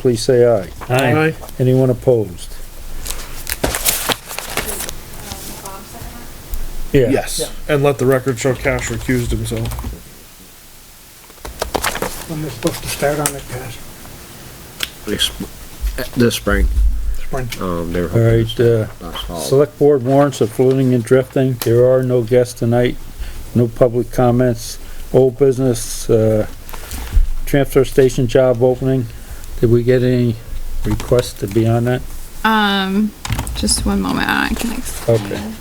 please say aye. Aye. Anyone opposed? Yeah, Yes, and let the record show Cash recused himself. When they're supposed to start on it, guys, This this spring, spring. um, they were all hoping to right, uh, start last fall. select board warrants of floating and drifting. There are no guests tonight, no public comments, old business, uh, transfer station job opening. Did we get any requests to be on that? Um, just one moment, I can explain. Okay,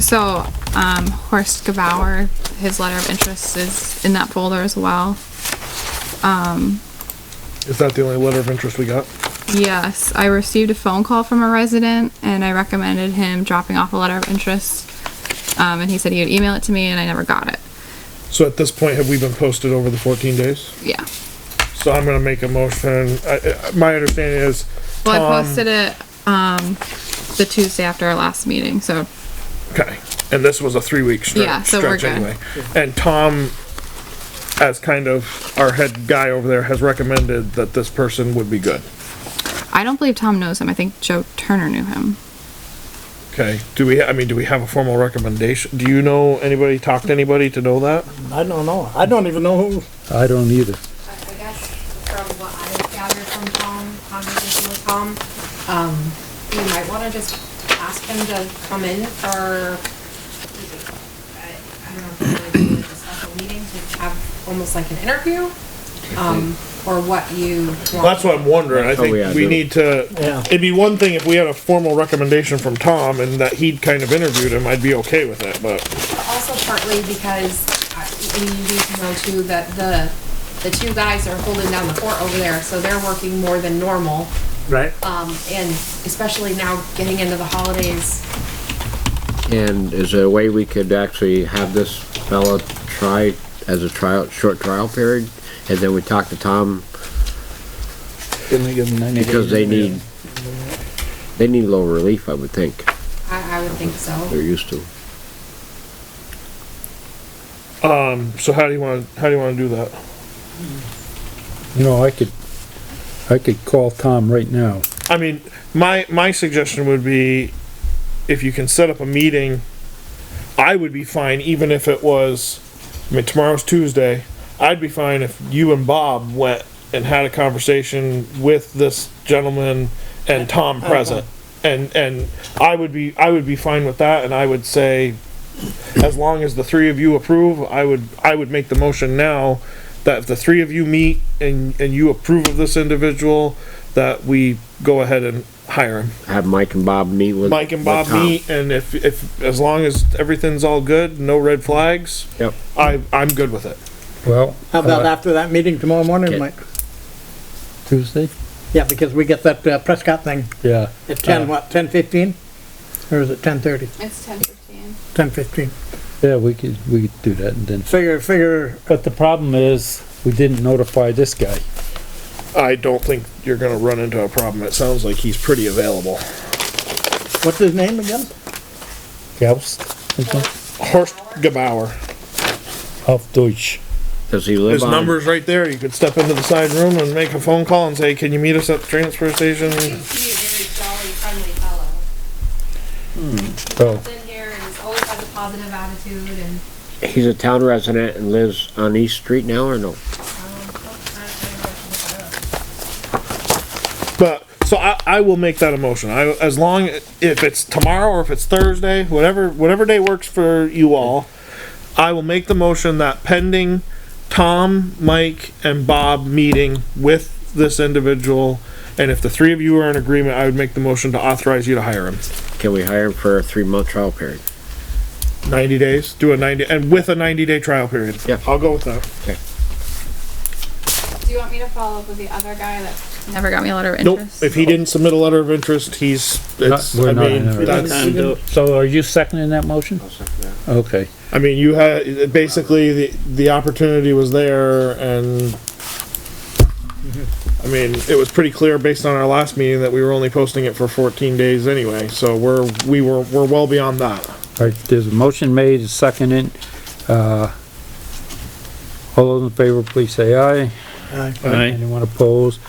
So, um, Horst Gabauer, his letter of interest is in that folder as well. Is that the only letter of interest we got? Yes, I received a phone call from a resident and I recommended him dropping off a letter of interest. Um, and he said he would email it to me and I never got it. So at this point, have we been posted over the fourteen days? Yeah. So I'm gonna make a motion. I, I, my understanding is, Well, I Tom- posted it, um, the Tuesday after our last meeting, so, okay, and this was a three-week Yeah, stretch, so we're stretch good. anyway. And Tom, as kind of our head guy over there, has recommended that this person would be good. I don't believe Tom knows him. I think Joe Turner knew him. Okay, do we, I mean, do we have a formal recommendation? Do you know anybody, talk to anybody to know that? I don't know. I don't even know who. I don't either. I I guess from what I gathered from Tom, conversation with Tom, um, you might wanna just ask him to come in for, I I don't know, if we're gonna do a special meeting to have almost like an interview, um, or what you want. That's what I'm wondering. I Oh, yeah, think we do- need to, Yeah. it'd be one thing if we had a formal recommendation from Tom and that he'd kind of interviewed him, I'd be okay with it, but Also partly because, I- and you need to know too, that the, the two guys are holding down the fort over there, so they're working more than normal. Right. Um, and especially now getting into the holidays, And is there a way we could actually have this fella try as a trial, short trial period? And then we talk to Tom, because they need, they need a little relief, I would think, I, I would think they're so. used to. so how do you wanna, how do you wanna do that? You know, I could, I could call Tom right now. I mean, my, my suggestion would be if you can set up a meeting, I would be fine even if it was, I mean, tomorrow's Tuesday. I'd be fine if you and Bob went and had a conversation with this gentleman and Tom present. And, and I would be, I would be fine with that and I would say, as long as the three of you approve, I would, I would make the motion now that if the three of you meet and, and you approve of this individual, that we go ahead and hire him. Have Mike and Bob meet with. Mike and with Bob Tom. meet, and if, if, as long as everything's all good, no red flags, Yep, I, I'm good with it. Well, How about uh, after that meeting tomorrow morning, Okay. Mike? Tuesday? Yeah, because we get that uh, Prescott thing Yeah. at ten, what, ten fifteen? Or is it ten thirty? It's ten fifteen. Ten fifteen. Yeah, we could, we could do that and then. Figure, figure, But the problem is, we didn't notify this guy. I don't think you're gonna run into a problem. It sounds like he's pretty available. what's his name again? Gauss, I think, Horst Gebauer. of Deutsch. does he live His on? number's right there. You could step into the side room and make a phone call and say, can you meet us at the transfer station? He is a very jolly, friendly fellow. So, Oh. He's in here and he's always has a positive attitude and, He's a town resident and lives on East Street now, or no? um, But, so I, I will make that a motion. I, as long, if it's tomorrow or if it's Thursday, whatever, whatever day works for you all, I will make the motion that pending Tom, Mike, and Bob meeting with this individual, and if the three of you are in agreement, I would make the motion to authorize you to hire him. Can we hire him for a three-month trial period? Ninety days, do a ninety, and with a ninety-day trial period. Yeah. I'll go with that. Do you want me to follow up with the other guy that never got me a letter of Nope, interest? if he didn't submit a letter of interest, he's, it's, we're I not mean, in a hurry. that's. so are you seconding that motion? Okay, I mean, you had, basically, the, the opportunity was there and, I mean, it was pretty clear based on our last meeting that we were only posting it for fourteen days anyway, so we're, we were, we're well beyond that. alright, there's a motion made, it's seconded, uh, all those in favor, please say aye. Aye. Anyone opposed?